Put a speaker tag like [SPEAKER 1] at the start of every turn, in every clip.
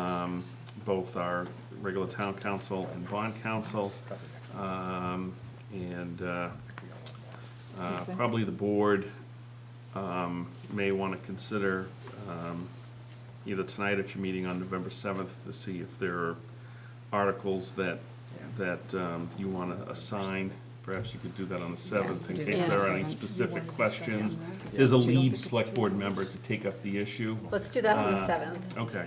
[SPEAKER 1] Um, both our regular town council and bond council. Um, And uh, uh,
[SPEAKER 2] Okay.
[SPEAKER 1] probably the board um, may want to consider um, either tonight at your meeting on November 7th to see if there are articles that, that um, you want to assign. Perhaps you could do that on the 7th in
[SPEAKER 2] do
[SPEAKER 1] case
[SPEAKER 2] that.
[SPEAKER 1] there are
[SPEAKER 2] Yeah.
[SPEAKER 1] any specific questions.
[SPEAKER 2] Yeah.
[SPEAKER 1] There's a
[SPEAKER 2] Yeah.
[SPEAKER 1] lead select board member to take up the issue.
[SPEAKER 3] Let's do that on the
[SPEAKER 1] Uh,
[SPEAKER 3] 7th.
[SPEAKER 1] Okay.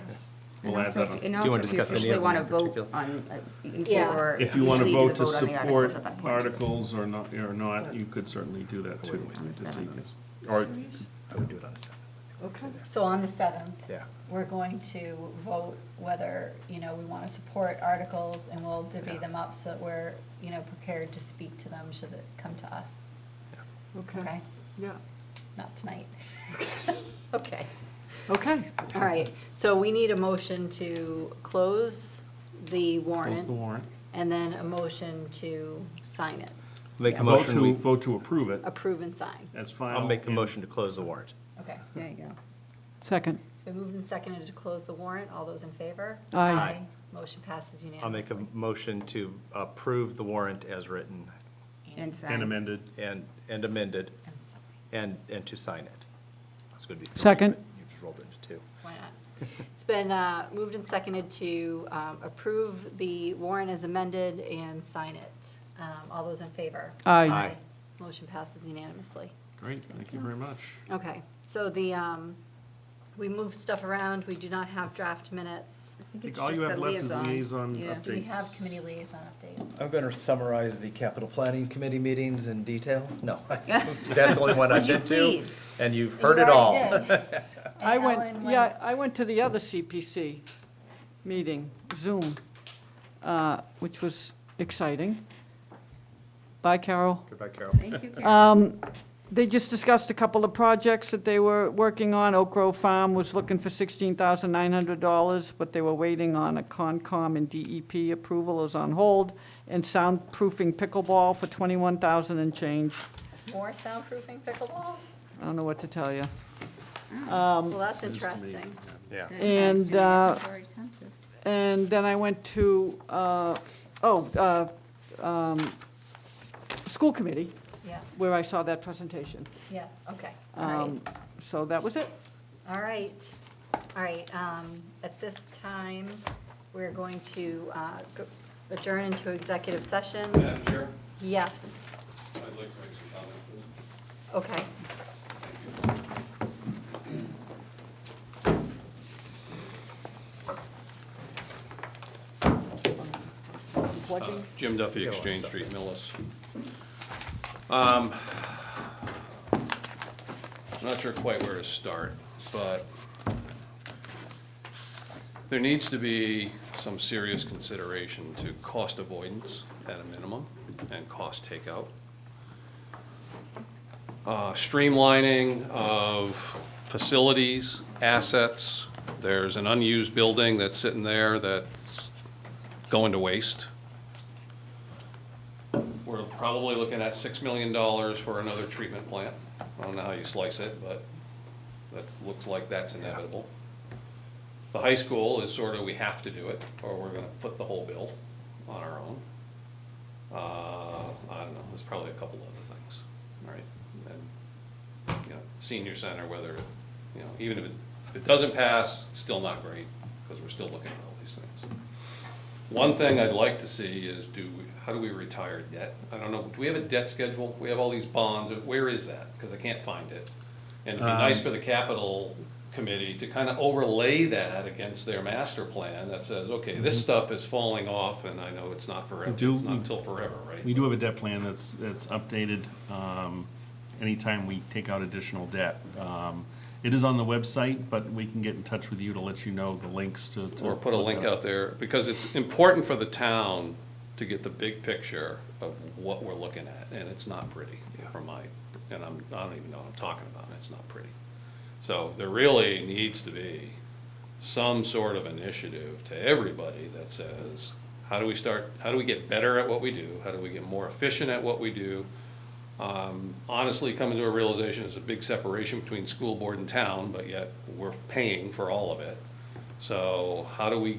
[SPEAKER 4] And
[SPEAKER 1] We'll add
[SPEAKER 4] also
[SPEAKER 1] that
[SPEAKER 4] if-
[SPEAKER 1] on.
[SPEAKER 4] And
[SPEAKER 5] you
[SPEAKER 4] also,
[SPEAKER 5] wanna
[SPEAKER 4] if you
[SPEAKER 5] discuss any
[SPEAKER 4] officially
[SPEAKER 5] of
[SPEAKER 4] want to
[SPEAKER 5] them in
[SPEAKER 4] vote on, uh, you
[SPEAKER 3] Yeah.
[SPEAKER 4] or
[SPEAKER 1] If you want to
[SPEAKER 4] usually do the
[SPEAKER 1] vote to
[SPEAKER 4] vote on the articles
[SPEAKER 1] support
[SPEAKER 4] at that point.
[SPEAKER 1] articles or not, or not, you could certainly do that too.
[SPEAKER 4] On the
[SPEAKER 1] this
[SPEAKER 4] seventh.
[SPEAKER 1] evening. Or,
[SPEAKER 5] I would do it on the seventh.
[SPEAKER 2] Okay.
[SPEAKER 3] So on the 7th,
[SPEAKER 5] Yeah.
[SPEAKER 3] we're going to vote whether, you know, we want to support articles, and we'll divvy
[SPEAKER 5] Yeah.
[SPEAKER 3] them up so that we're, you know, prepared to speak to them should it come to us,
[SPEAKER 2] Okay,
[SPEAKER 3] okay?
[SPEAKER 2] yeah,
[SPEAKER 3] Not tonight. Okay,
[SPEAKER 2] okay.
[SPEAKER 3] all right, so we need a motion to close the
[SPEAKER 1] close
[SPEAKER 3] warrant,
[SPEAKER 1] the warrant.
[SPEAKER 3] and then a motion to sign it,
[SPEAKER 5] Make a
[SPEAKER 1] Vote
[SPEAKER 5] motion,
[SPEAKER 1] to,
[SPEAKER 5] we-
[SPEAKER 1] vote to approve it
[SPEAKER 3] approve and sign,
[SPEAKER 1] as final.
[SPEAKER 5] I'll make a
[SPEAKER 1] and-
[SPEAKER 5] motion to close the warrant.
[SPEAKER 3] okay?
[SPEAKER 4] There you go.
[SPEAKER 2] Second,
[SPEAKER 3] It's been moved and seconded to close the warrant, all those in favor?
[SPEAKER 2] Aye. Aye.
[SPEAKER 3] Motion passes unanimously.
[SPEAKER 5] I'll make a motion to approve the warrant as written
[SPEAKER 4] And sign.
[SPEAKER 1] And amended.
[SPEAKER 5] and, and amended,
[SPEAKER 3] And sign.
[SPEAKER 5] and, and to sign it. That's going to be. three,
[SPEAKER 2] Second.
[SPEAKER 5] but You just rolled into two.
[SPEAKER 3] Why not? It's been uh, moved and seconded to um, approve the warrant as amended and sign it. Um, All those in favor?
[SPEAKER 2] aye.
[SPEAKER 5] Aye.
[SPEAKER 3] Motion passes unanimously.
[SPEAKER 1] Great, thank you very much.
[SPEAKER 3] Okay, so the, um, we move stuff around, we do not have draft minutes.
[SPEAKER 1] I think all you have left is liaison updates.
[SPEAKER 3] Do we have committee liaison updates?
[SPEAKER 6] I'm going to summarize the capital planning committee meetings in detail. No, that's the only one I've
[SPEAKER 4] Would you
[SPEAKER 6] been to,
[SPEAKER 4] please?
[SPEAKER 6] and you've
[SPEAKER 3] You
[SPEAKER 6] heard it
[SPEAKER 3] already
[SPEAKER 6] all.
[SPEAKER 3] did. And
[SPEAKER 2] I
[SPEAKER 3] Ellen
[SPEAKER 2] went,
[SPEAKER 3] went-
[SPEAKER 2] yeah, I went to the other CPC meeting, Zoom, uh, which was exciting. Bye, Carol.
[SPEAKER 5] Goodbye, Carol.
[SPEAKER 4] Thank you, Karen.
[SPEAKER 2] Um, They just discussed a couple of projects that they were working on. Oak Grove Farm was looking for $16,900, but they were waiting on a Concom and DEP approval is on hold, and soundproofing pickleball for 21,000 and change.
[SPEAKER 3] More soundproofing pickleball?
[SPEAKER 2] I don't know what to tell you.
[SPEAKER 3] Well, that's interesting.
[SPEAKER 5] Yeah.
[SPEAKER 4] That sounds
[SPEAKER 2] and,
[SPEAKER 4] to me
[SPEAKER 2] uh,
[SPEAKER 4] like it's very sensitive.
[SPEAKER 2] And then I went to, uh, oh, uh, um, school committee,
[SPEAKER 3] Yeah,
[SPEAKER 2] where I saw that presentation.
[SPEAKER 3] yeah, okay, all right.
[SPEAKER 2] Um, So that was it.
[SPEAKER 3] All right, all right, um, at this time, we're going to, uh, go- adjourn into executive session.
[SPEAKER 7] Madam Chair,
[SPEAKER 3] Yes,
[SPEAKER 7] I'd like to make some comments. please.
[SPEAKER 3] okay.
[SPEAKER 2] Plugging.
[SPEAKER 7] Jim Duffy,
[SPEAKER 5] Yeah, well,
[SPEAKER 7] Exchange
[SPEAKER 5] stuff.
[SPEAKER 7] Street, Millis. Um, Not sure quite where to start, but there needs to be some serious consideration to cost avoidance at a minimum and cost takeout. Uh, Streamlining of facilities, assets. There's an unused building that's sitting there that's going to waste we're probably looking at six million dollars for another treatment plant. I don't know how you slice it, but that looks like that's inevitable. The high school is sort of, we have to do it, or we're gonna foot the whole bill on our own. Uh, I don't know, there's probably a couple other things, all right? And, you know, senior center, whether, you know, even if it, if it doesn't pass, it's still not great, because we're still looking at all these things. One thing I'd like to see is do, we- how do we retire debt? I don't know, do we have a debt schedule? We have all these bonds, where is that? Because I can't find it. And it'd be nice for the capital committee to kind of overlay that against their master plan that says, okay, this stuff is falling off and I know it's not forever, it's
[SPEAKER 1] do-
[SPEAKER 7] not until forever, right?
[SPEAKER 1] We do have a debt plan that's, that's updated um, anytime we take out additional debt. Um, It is on the website, but we can get in touch with you to let you know the links to. to
[SPEAKER 7] or put a
[SPEAKER 1] look
[SPEAKER 7] link
[SPEAKER 1] up.
[SPEAKER 7] out there, because it's important for the town to get the big picture of what we're looking at, and it's not pretty from my, and I'm, I don't even know what I'm talking about, and it's not pretty. So there really needs to be some sort of initiative to everybody that says, how do we start, how do we get better at what we do? How do we get more efficient at what we do? Um, Honestly, coming to a realization, there's a big separation between school board and town, but yet we're paying for all of it. So how do we